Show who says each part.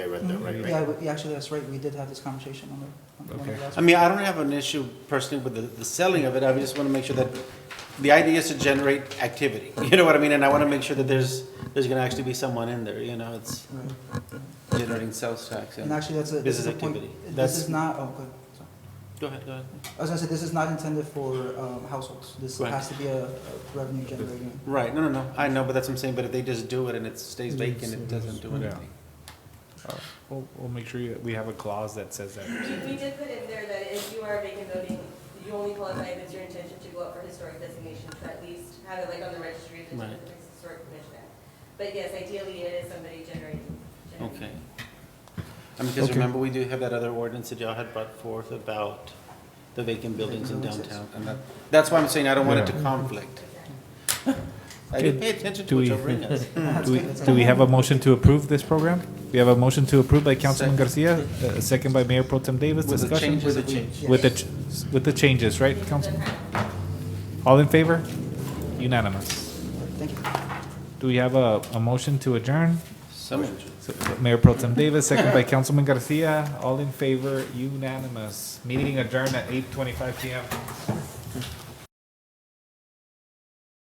Speaker 1: I read that right,
Speaker 2: Mm-hmm. Yeah,
Speaker 1: right?
Speaker 2: we- yeah, actually, that's right, we did have this conversation on the, on one of the last.
Speaker 3: I mean, I don't have an issue personally with the, the selling of it, I just wanna make sure that, the idea is to generate activity, you know what I mean? And I wanna make sure that there's, there's gonna actually be someone in there, you know, it's
Speaker 2: Right.
Speaker 3: generating sales tax.
Speaker 2: And
Speaker 3: and-
Speaker 2: actually, that's a, this
Speaker 3: Business
Speaker 2: is a point,
Speaker 3: activity.
Speaker 2: this
Speaker 3: That's-
Speaker 2: is not, oh, good, sorry.
Speaker 3: Go ahead, go ahead.
Speaker 2: I was gonna say, this is not intended for, um, households, this
Speaker 3: Right.
Speaker 2: has to be a a revenue generating.
Speaker 3: Right, no, no, no, I know, but that's what I'm saying, but if they just do it and it stays vacant, it doesn't do
Speaker 4: Yeah.
Speaker 3: anything.
Speaker 4: We'll, we'll make sure that we have a clause that says that.
Speaker 5: We we did put in there that if you are vacant voting, you only qualify if it's your intention to go up for historic designation, to at least have it like on the registry of the
Speaker 3: Right.
Speaker 5: Texas Historic Commission Act. But yes, ideally it is somebody generating. generating.
Speaker 3: Okay. I mean, because
Speaker 6: Okay.
Speaker 3: remember, we do have that other ordinance that y'all had brought forth about the vacant buildings in
Speaker 2: Vacant buildings,
Speaker 3: downtown, and that, that's why I'm saying I don't want it to conflict. I didn't pay attention to
Speaker 4: Do
Speaker 3: what
Speaker 4: we-
Speaker 3: y'all bring us.
Speaker 2: That's
Speaker 4: Do we,
Speaker 2: good, that's
Speaker 4: do we
Speaker 2: good.
Speaker 4: have a motion to approve this program? We have a motion to approve by Councilman Garcia, uh, second by Mayor Pro Tem Davis,
Speaker 3: With the
Speaker 4: discussion?
Speaker 3: changes that we.
Speaker 4: With the, ch- with the changes, right, Council? All in favor? Unanimous.
Speaker 2: Thank you.
Speaker 4: Do we have a, a motion to adjourn?
Speaker 3: Some.
Speaker 4: So, Mayor Pro Tem Davis, second by Councilman Garcia, all in favor, unanimous. Meeting adjourned at eight twenty-five PM.